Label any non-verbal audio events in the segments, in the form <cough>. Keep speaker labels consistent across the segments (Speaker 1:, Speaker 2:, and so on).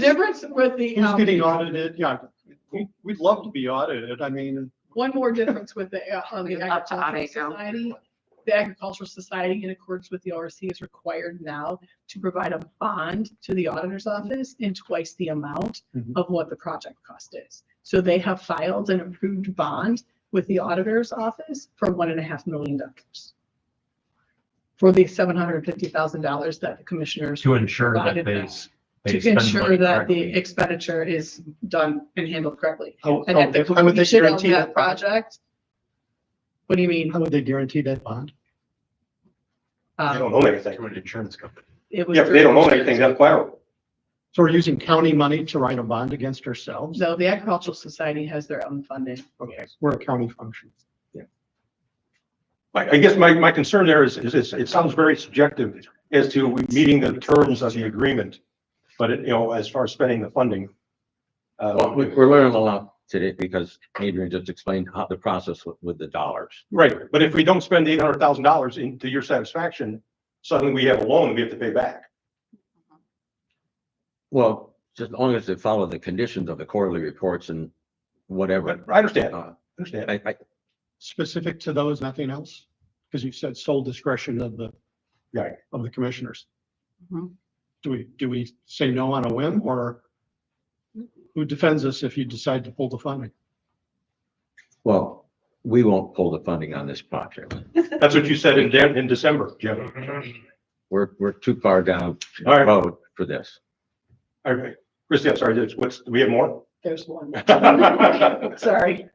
Speaker 1: The difference with the,
Speaker 2: Who's
Speaker 1: um,
Speaker 2: getting audited? Yeah, we, we'd love to be audited. I mean,
Speaker 1: one more difference with the, uh, on the
Speaker 3: Leave it up to
Speaker 1: agricultural
Speaker 3: Avico.
Speaker 1: society. The agricultural society in accordance with the ORC is required now to provide a bond to the auditor's office in twice the amount
Speaker 4: Mm-hmm.
Speaker 2: Mhm.
Speaker 1: of what the project cost is. So they have filed an approved bond with the auditor's office for one and a half million dollars. For the seven hundred and fifty thousand dollars that the commissioners
Speaker 4: To ensure that
Speaker 1: Provided
Speaker 4: they.
Speaker 1: that-
Speaker 4: s- they
Speaker 1: to
Speaker 4: spend money
Speaker 1: ensure that the
Speaker 4: correctly.
Speaker 1: expenditure is done and handled correctly.
Speaker 2: how,
Speaker 1: And at the
Speaker 2: how would they
Speaker 1: completion of
Speaker 2: guarantee
Speaker 1: that
Speaker 2: that?
Speaker 1: project. What do you mean?
Speaker 2: How would they guarantee that bond?
Speaker 5: They don't
Speaker 1: Um,
Speaker 5: own anything.
Speaker 4: To an insurance company.
Speaker 1: It was.
Speaker 5: Yeah, if they don't own anything, that's collateral.
Speaker 2: So we're using county money to write a bond against ourselves?
Speaker 1: No, the agricultural society has their own funding.
Speaker 2: Okay, we're a county function.
Speaker 5: I, I guess my, my concern there is, is, is it sounds very subjective as to meeting the terms of the agreement. But it, you know, as far as spending the funding.
Speaker 6: Well, we-
Speaker 5: Uh,
Speaker 6: we're learning a lot today because Adrian just explained how the process with, with the dollars.
Speaker 5: right, but if we don't spend eight hundred thousand dollars into your satisfaction, suddenly we have a loan we have to pay back.
Speaker 6: Well, just as long as they follow the conditions of the quarterly reports and
Speaker 5: But
Speaker 6: whatever.
Speaker 5: I understand, I
Speaker 6: Uh,
Speaker 5: understand.
Speaker 6: I, I,
Speaker 2: Specific to those, nothing else? Because you said sole discretion of the,
Speaker 5: Right.
Speaker 2: of the commissioners.
Speaker 3: Mhm.
Speaker 2: Do we, do we say no on a whim or who defends us if you decide to pull the funding?
Speaker 6: well, we won't pull the funding on this project.
Speaker 5: That's what you said in, Dan- in December, Jim.
Speaker 6: We're, we're too far down
Speaker 5: All
Speaker 6: the
Speaker 5: right.
Speaker 6: road for this.
Speaker 5: All right, Christie, I'm sorry, there's- what's, do we have more?
Speaker 1: There's
Speaker 5: <laughs>
Speaker 1: one. Sorry.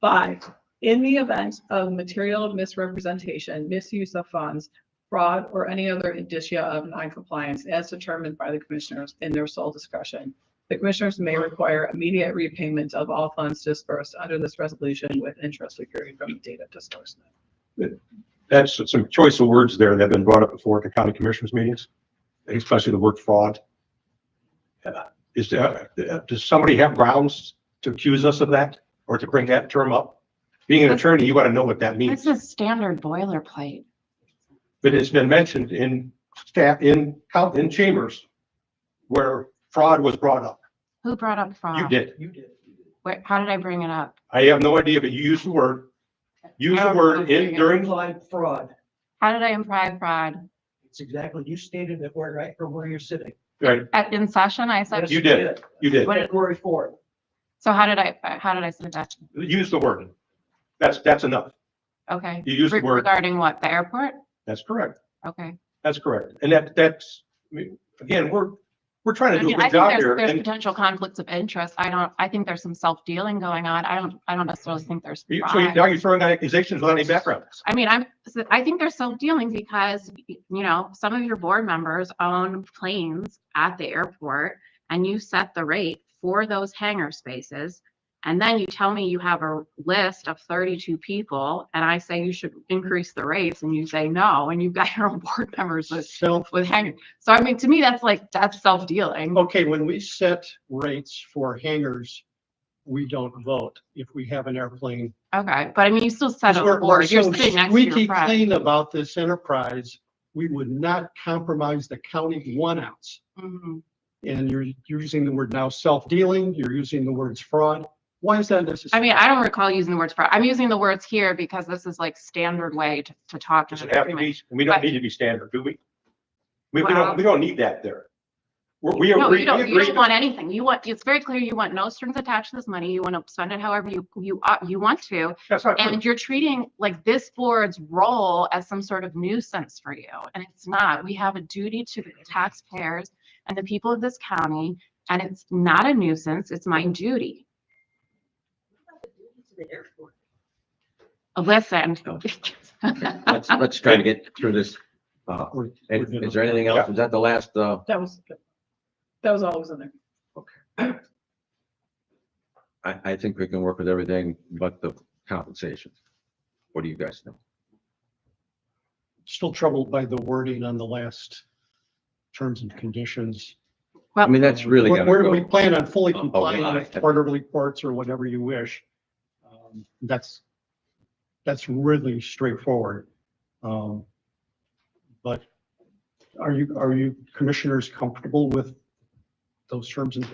Speaker 1: Five, in the event of material misrepresentation, misuse of funds, fraud, or any other indicia of noncompliance as determined by the commissioners in their sole discretion, the commissioners may require immediate repayment of all funds dispersed under this resolution with interest accruing from the date of disbursement.
Speaker 5: That's some choice of words there that have been brought up before at the county commissioners meetings, especially the word fraud. Uh, Is there, uh, does somebody have grounds to accuse us of that or to bring that term up? Being an attorney, you want to know what that means.
Speaker 3: This is standard boilerplate.
Speaker 5: But it's been mentioned in staff, in, coun- in chambers where fraud was brought up.
Speaker 3: Who brought up fraud?
Speaker 5: You did.
Speaker 3: Where, how did I bring it up?
Speaker 5: I have no idea, but you used the word. Use the word in during,
Speaker 7: implied fraud.
Speaker 3: How did I imply fraud?
Speaker 7: It's exactly, you stated it where, right from where you're sitting.
Speaker 5: right,
Speaker 3: At, in session, I said,
Speaker 7: Yes,
Speaker 5: you did. you did.
Speaker 3: What-
Speaker 7: February fourth.
Speaker 3: so how did I, how did I say that?
Speaker 5: Use the word. That's, that's enough.
Speaker 3: Okay.
Speaker 5: You used the
Speaker 3: Re-
Speaker 5: word.
Speaker 3: Regarding what? The airport?
Speaker 5: That's correct.
Speaker 3: Okay.
Speaker 5: That's correct. And that, that's, I mean, again, we're, we're trying
Speaker 3: I
Speaker 5: to do
Speaker 3: mean, I
Speaker 5: a good
Speaker 3: think
Speaker 5: job
Speaker 3: there's,
Speaker 5: here.
Speaker 3: there's
Speaker 5: And
Speaker 3: potential conflicts of interest. I don't, I think there's some self-dealing going on. I don't, I don't necessarily think there's
Speaker 5: you- so you-
Speaker 3: fraud.
Speaker 5: now you're throwing out accusations without any background.
Speaker 3: I mean, I'm, so I think they're self-dealing because, you know, some of your board members own planes at the airport and you set the rate for those hangar spaces. And then you tell me you have a list of thirty-two people and I say you should increase the rates and you say no, and you've got <laughs> your own board members with,
Speaker 2: Self
Speaker 3: with hangar. So I mean, to me, that's like, that's self-dealing.
Speaker 2: Okay, when we set rates for hangars, we don't vote if we have an airplane.
Speaker 3: Okay, but I mean, you still set a
Speaker 2: We're- we're
Speaker 3: board. You're
Speaker 2: so
Speaker 3: sitting next to your
Speaker 2: squeaky
Speaker 3: friend.
Speaker 2: clean about this enterprise, we would not compromise the county one ounce.
Speaker 3: Mhm.
Speaker 2: And you're using the word now self-dealing, you're using the words fraud. Why is that
Speaker 3: I
Speaker 2: necessary?
Speaker 3: mean, I don't recall using the words fraud. I'm using the words here because this is like standard way to, to talk. in
Speaker 5: Does
Speaker 3: an
Speaker 5: it have to
Speaker 3: agreement.
Speaker 5: be, we don't
Speaker 3: But-
Speaker 5: need to be standard, do we? We, we
Speaker 3: Well-
Speaker 5: don't, we don't need that there. We're- We
Speaker 3: No,
Speaker 5: agree,
Speaker 3: you
Speaker 5: we
Speaker 3: don't, you
Speaker 5: agree.
Speaker 3: don't want anything. You want, it's very clear, you want no strings attached to this money. You want to spend it however you, you, uh, you want to.
Speaker 5: That's not true.
Speaker 3: And you're treating like this board's role as some sort of nuisance for you. And it's not. We have a duty to the taxpayers and the people of this county. And it's not a nuisance. It's my duty. Listen.
Speaker 5: Oh.
Speaker 3: <laughs>
Speaker 6: Let's, let's try to get through this. Uh,
Speaker 2: We're- we're
Speaker 6: and
Speaker 2: good
Speaker 6: is
Speaker 2: on
Speaker 6: there anything else? Is that the last, uh,
Speaker 1: That was, that was always in there.
Speaker 6: I, I think we can work with everything but the compensation. What do you guys think?
Speaker 2: Still troubled by the wording on the last terms and conditions.
Speaker 6: I mean, that's really
Speaker 2: We're-
Speaker 6: gotta
Speaker 2: we're- We
Speaker 6: go. Oh,
Speaker 2: plan on fully
Speaker 6: a- a
Speaker 2: complying
Speaker 6: lot.
Speaker 2: with quarterly reports or whatever you wish. Um, That's, that's really straightforward. Um, But are you, are you commissioners comfortable with those terms and